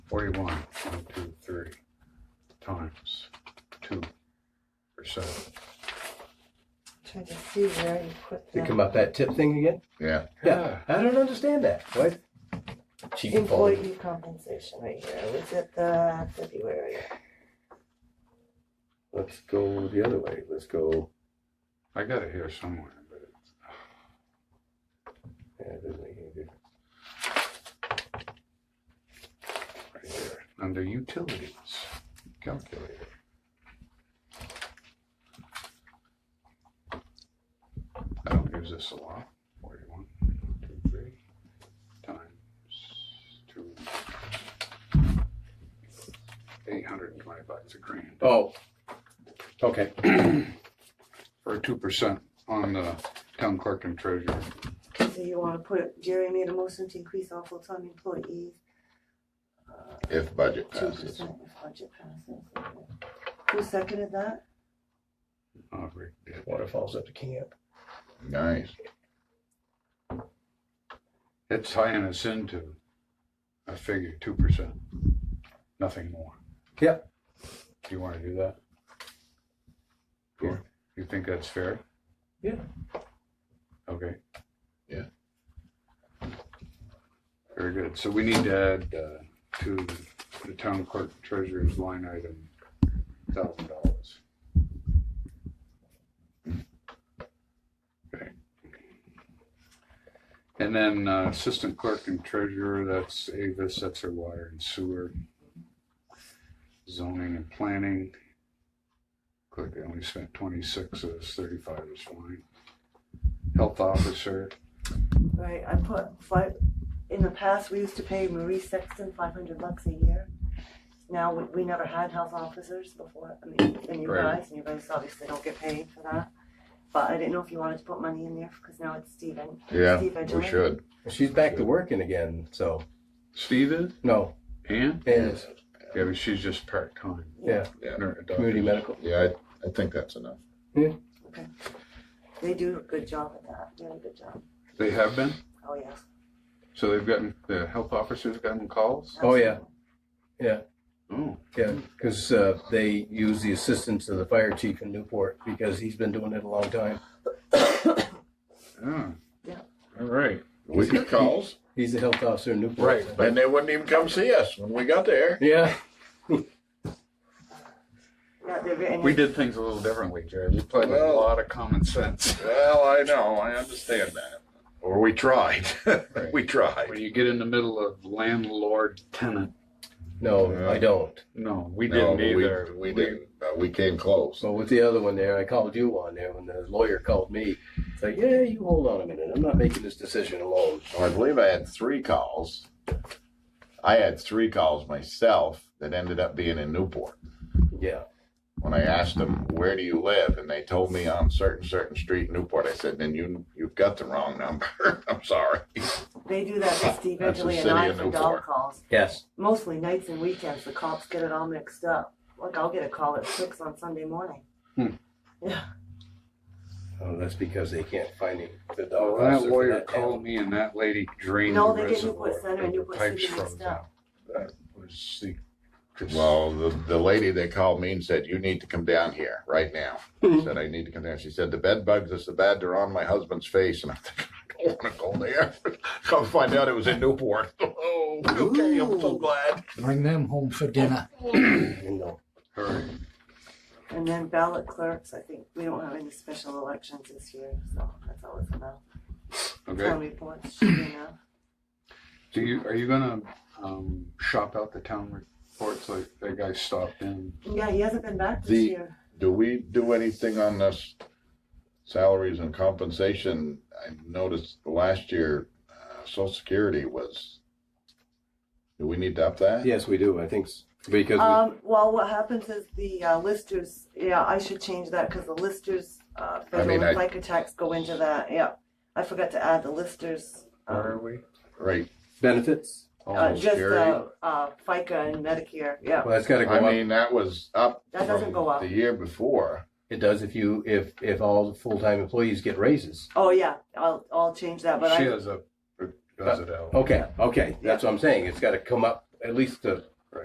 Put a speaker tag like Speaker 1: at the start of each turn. Speaker 1: Forty-one, one, two, three, times two percent.
Speaker 2: Trying to see where you put
Speaker 3: Think
Speaker 2: that.
Speaker 3: about that tip thing again?
Speaker 4: Yeah.
Speaker 3: Yeah, I don't understand that. What? Cheap and fall.
Speaker 2: Employee compensation right here, was it the February?
Speaker 3: Let's go the other way. Let's go.
Speaker 1: I got it here somewhere, but it's,
Speaker 3: Yeah, it doesn't make any difference.
Speaker 1: under utilities, calculator. I don't use this a lot, forty-one, one, two, three, times two. Eight hundred and twenty bucks a grand,
Speaker 3: Oh. Okay.
Speaker 1: or two percent on the town clerk and treasurer.
Speaker 2: So you wanna put, Jerry made a motion to increase all full-time employees
Speaker 4: If budget
Speaker 2: two
Speaker 4: passes.
Speaker 2: percent if budget passes. Who seconded that?
Speaker 1: Uh, Rick did.
Speaker 3: Waterfalls up to camp.
Speaker 4: Nice.
Speaker 1: It's tying us into, I figure, two percent, nothing more.
Speaker 3: Yep.
Speaker 1: Do you wanna do that?
Speaker 3: Yeah.
Speaker 1: You think that's fair?
Speaker 3: Yeah.
Speaker 1: Okay.
Speaker 4: Yeah.
Speaker 1: Very good, so we need to add, uh, to the town clerk treasurer's line item, thousand dollars. Okay. And then uh, assistant clerk and treasurer, that's Avis, that's our water and sewer. Zoning and planning. Click, they only spent twenty-six, of this thirty-five is fine. Health officer,
Speaker 2: Right, I put five, in the past, we used to pay Marie Sexton five hundred bucks a year. Now, we, we never had health officers before, I mean, and you
Speaker 1: Right.
Speaker 2: guys, and you guys obviously don't get paid for that. But I didn't know if you wanted to put money in there, cause now it's Steven.
Speaker 4: Yeah,
Speaker 2: Steve, I
Speaker 4: we
Speaker 2: joined.
Speaker 4: should.
Speaker 3: She's back to working again, so.
Speaker 1: Steve is,
Speaker 3: No,
Speaker 1: Ann?
Speaker 3: Anna's
Speaker 1: Yeah, but she's just part-time.
Speaker 3: Yeah.
Speaker 4: Yeah.
Speaker 1: Nurse, doctor.
Speaker 3: community medical.
Speaker 4: Yeah, I, I think that's enough.
Speaker 2: They do a good job at that, doing a good job,
Speaker 1: They have been,
Speaker 2: oh, yes.
Speaker 1: so they've gotten, the health officers gotten calls?
Speaker 3: Oh, yeah.
Speaker 2: absolutely.
Speaker 1: Oh,
Speaker 3: Yeah, because uh, they use the assistance of the fire chief in Newport because he's been doing it a long time.
Speaker 1: yeah.
Speaker 2: Yeah.
Speaker 1: All right.
Speaker 4: We get calls,
Speaker 3: He's the health officer in Newport.
Speaker 4: right, and they wouldn't even come see us when we got there.
Speaker 3: Yeah.
Speaker 2: Yeah, they're very.
Speaker 1: We did things a little differently, Jerry. We played a
Speaker 4: Well-
Speaker 1: lot of common sense.
Speaker 4: Well, I know, I understand that. Or we tried. We
Speaker 1: When
Speaker 4: tried.
Speaker 1: you get in the middle of landlord tenant,
Speaker 3: No, I don't.
Speaker 1: no, we
Speaker 4: No,
Speaker 1: didn't
Speaker 4: but we-
Speaker 1: either.
Speaker 4: We didn't, but we came close.
Speaker 3: So with the other one there, I called you on there when the lawyer called me. It's like, yeah, you hold on a minute. I'm not making this decision alone.
Speaker 4: Well, I believe I had three calls. I had three calls myself that ended up being in Newport.
Speaker 3: Yeah.
Speaker 4: When I asked them, where do you live? And they told me on certain, certain street in Newport. I said, then you, you've got the wrong number. I'm sorry.
Speaker 2: They do that with Steve
Speaker 4: That's the
Speaker 2: Ridgely and
Speaker 4: city
Speaker 2: I
Speaker 4: of
Speaker 2: for dog
Speaker 4: Newport.
Speaker 2: calls,
Speaker 3: Yes.
Speaker 2: mostly nights and weekends, the cops get it all mixed up. Like, I'll get a call at six on Sunday morning.
Speaker 3: Oh, that's because they can't find him. The dog
Speaker 1: Oh, that
Speaker 3: officer for
Speaker 1: lawyer
Speaker 3: that
Speaker 1: called me and that lady drained the
Speaker 2: No, they get
Speaker 1: reservoir.
Speaker 2: Newport Center and
Speaker 1: The
Speaker 2: Newport
Speaker 1: pipes
Speaker 2: City
Speaker 1: froze
Speaker 2: mixed up.
Speaker 1: out. That was the.
Speaker 4: Well, the, the lady that called me and said, you need to come down here right now.
Speaker 2: Hmm.
Speaker 4: I said, I need to come down. She said, the bed bugs are so bad, they're on my husband's face. And I'm thinking, I don't want to
Speaker 2: Oh.
Speaker 4: go there. come find out it was in Newport. Oh, okay. I'm so
Speaker 5: Ooh.
Speaker 4: glad.
Speaker 5: Bring them home for dinner.
Speaker 3: town, You know.
Speaker 1: All right.
Speaker 2: And then ballot clerks, I think, we don't have any special elections this year, so that's always enough. Town
Speaker 1: Okay.
Speaker 2: reports should be enough.
Speaker 1: Do you, are you gonna, um, shop out the town reports like that guy stopped in?
Speaker 2: Yeah, he hasn't been back
Speaker 4: The-
Speaker 2: this year.
Speaker 4: Do we do anything on this salaries and compensation? I noticed last year, uh, social security was, do we need to up that?
Speaker 3: Yes, we do. I think s- because we,
Speaker 2: Um, well, what happens is the uh, listers, yeah, I should change that because the listers, uh, federal
Speaker 4: mean, I-
Speaker 2: and FICA tax go into that, yeah. I forgot to add the listers,
Speaker 1: Where
Speaker 2: um,
Speaker 1: are we?
Speaker 4: Right.
Speaker 3: benefits.
Speaker 2: uh,
Speaker 4: Social
Speaker 2: just, uh,
Speaker 4: Security.
Speaker 2: uh, FICA and Medicare, yeah.
Speaker 3: Well, that's got to go
Speaker 4: I
Speaker 3: up.
Speaker 4: mean, that was up
Speaker 2: That doesn't
Speaker 4: from
Speaker 2: go up.
Speaker 4: the year before.
Speaker 3: It does if you if if all full time employees get raises.
Speaker 2: Oh, yeah, I'll, I'll change that, but
Speaker 1: She
Speaker 2: I,
Speaker 1: has a, does it out.
Speaker 3: Okay. Okay. That's what I'm saying. It's got to come up at least to